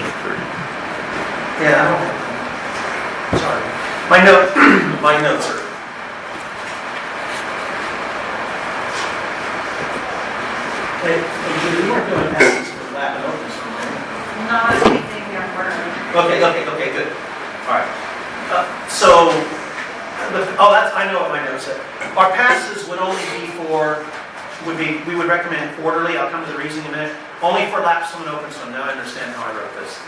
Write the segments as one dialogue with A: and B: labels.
A: Hey, you weren't doing passes for Latin Opus, right?
B: Not anything that we're,
A: Okay, okay, okay, good. All right. Uh, So, the- oh, that's, I know what my notes said. Our passes would only be for, would be, we would recommend quarterly, I'll come to the reason in a minute, only for lapsed and open swim, now I understand how I wrote this.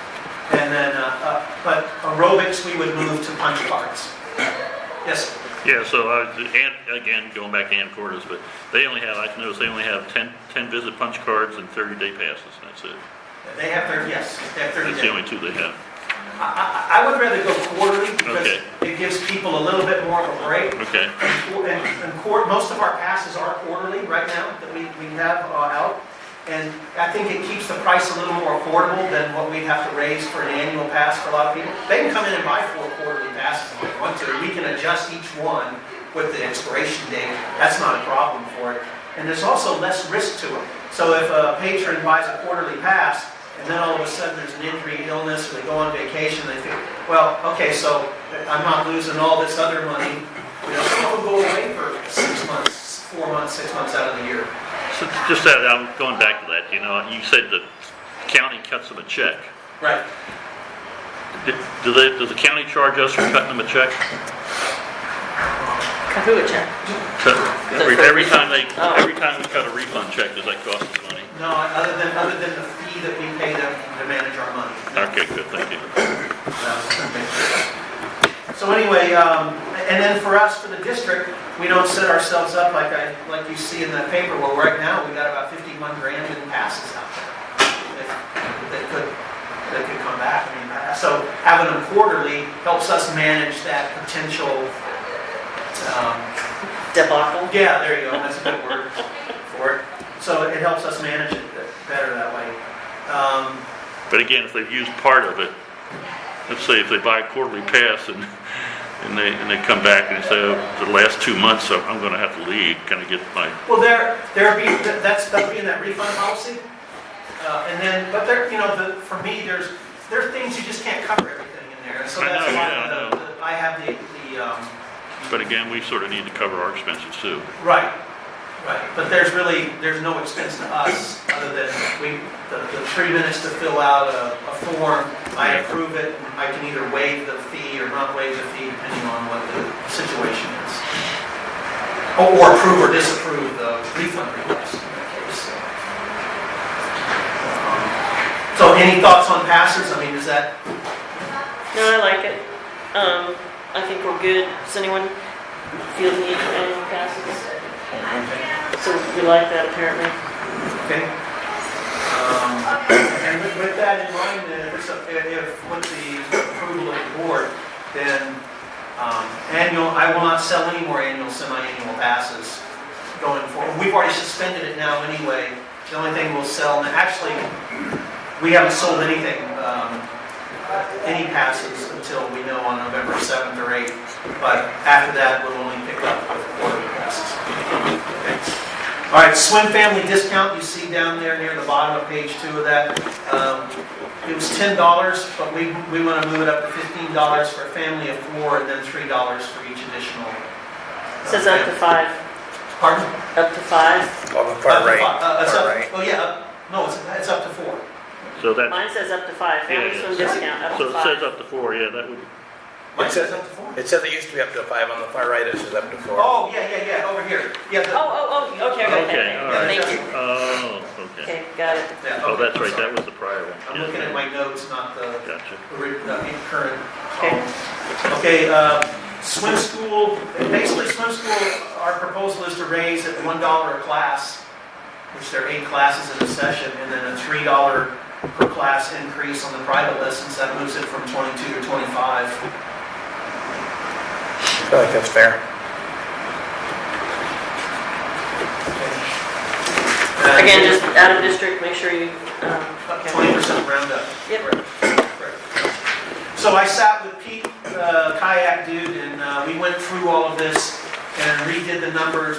A: And then, uh, uh, but aerobics, we would move to punch cards. Yes,
C: Yeah, so I, was- and, again, going back to Ann Cordes, but they only have, I noticed they only have 10 10 visit punch cards and thirty-day passes, that's it.
A: they have their, yes, they have 30 days.
C: That's the only two they have.
A: I, I I would rather go quarterly because
C: Okay.
A: it gives people a little bit more of a break.
C: Okay,
A: And, and quar- most of our passes are quarterly right now that we, we have uh, out. And I think it keeps the price a little more affordable than what we'd have to raise for an annual pass for a lot of people. They can come in and buy four quarterly passes if they want to. We can adjust each one with the expiration date. That's not a problem for it. And there's also less risk to it. So if a patron buys a quarterly pass and then all of a sudden there's an injury, illness, or they go on vacation, they think, well, okay, so I'm not losing all this other money. You know, some of them go away for six months, four months, six months out of the year.
C: so just that, I'm going back to that, you know, you said the county cuts them a check.
A: Right.
C: Do- Do they, does the county charge us for cutting them a check?
D: Who would check?
C: Cut- Every, every time they, every time we cut a refund check, does that cost us money?
A: No, other than, other than the fee that we pay them to manage our money.
C: Okay, good, thank you.
A: So anyway, um, and then for us, for the district, we don't set ourselves up like I, like you see in that paper, where right now, we got about 51 grand in passes out there. that- That could, that could come back, I mean, uh, so having them quarterly helps us manage that potential, um,
D: Debacle?
A: yeah, there you go, that's a good word for it. So it helps us manage it better that way. Um,
C: But again, if they've used part of it, let's say if they buy a quarterly pass and, and they, and they come back and they say, oh, the last two months, I'm I'm gonna have to leave, can I get my,
A: Well, there, there be, that's, that'll be in that refund policy. Uh, And then, but there, you know, the, for me, there's, there are things you just can't cover everything in there. So
C: I
A: that's
C: know,
A: why
C: yeah, I
A: the-
C: know.
A: the- I have the, the, um,
C: but again, we sort of need to cover our expenses too.
A: right, right. But there's really, there's no expense to us other than we, the, the three minutes to fill out a, a form. I
C: Yeah.
A: approve it. I can either waive the fee or not waive the fee depending on what the situation is. Or- Or approve or disapprove the refund request in that case. so. Um, So any thoughts on passes? I mean, is that,
D: No, I like it. Um, I think we're good. Does anyone feel the need for annual passes? So we like that apparently.
A: Okay. Um, And with- with that in mind, then, if, it's a- if- if with the approval of the board, then um, annual, I will not sell any more annual, semi-annual passes going forward. We've already suspended it now anyway. The only thing we'll sell, and actually, we haven't sold anything, um, any passes until we know on November 7th or 8th. But after that, we'll only pick up with quarterly passes. Okay? All right, swim family discount, you see down there near the bottom of page two of that. Um, It was ten dollars, but we, we want to move it up to fifteen dollars for a family of four, and then three dollars for each additional. uh,
D: Says up to
A: family.
D: five,
A: Pardon?
D: up to five.
E: On the
A: Up
E: far
A: to
E: right,
A: fi- uh, it's
E: far
A: up-
E: right.
A: Oh, yeah, up- no, it's, it's up to four.
C: So that,
D: Mine says up to five.
C: Yeah,
D: Family
C: yeah.
D: swim discount, up
C: so
D: to
C: it says
D: five.
C: up to four, yeah, that would,
A: Mine
E: It says-
A: says up to four.
E: It says it used to be up to five, on the far right it says up to four.
A: Oh, yeah, yeah, yeah, over here. Yeah,
D: Oh,
A: the-
D: oh, oh, okay, okay,
C: okay, all right.
D: okay. Thank you.
C: Oh, okay.
D: Okay, got it.
A: yeah.
C: Oh,
A: okay,
C: that's
A: I'm
C: right,
A: sorry.
C: that was the prior one.
A: I'm
C: Yeah,
A: looking at my notes, not the.
C: Gotcha.
A: ori- the current.
D: Okay.
A: column. Okay, uh, swim school, basically swim school, our proposal is to raise at one dollar a class, which there are eight classes in a session, and then a three dollar per class increase on the private lessons, that moves it from twenty-two to twenty-five.
E: I feel like that's fair.
A: And-
D: Again, just out of district, make sure you, um,
A: Twenty percent roundup.
D: Yep.
A: So I sat with Pete, uh, kayak dude, and uh, we went through all of this and redid the numbers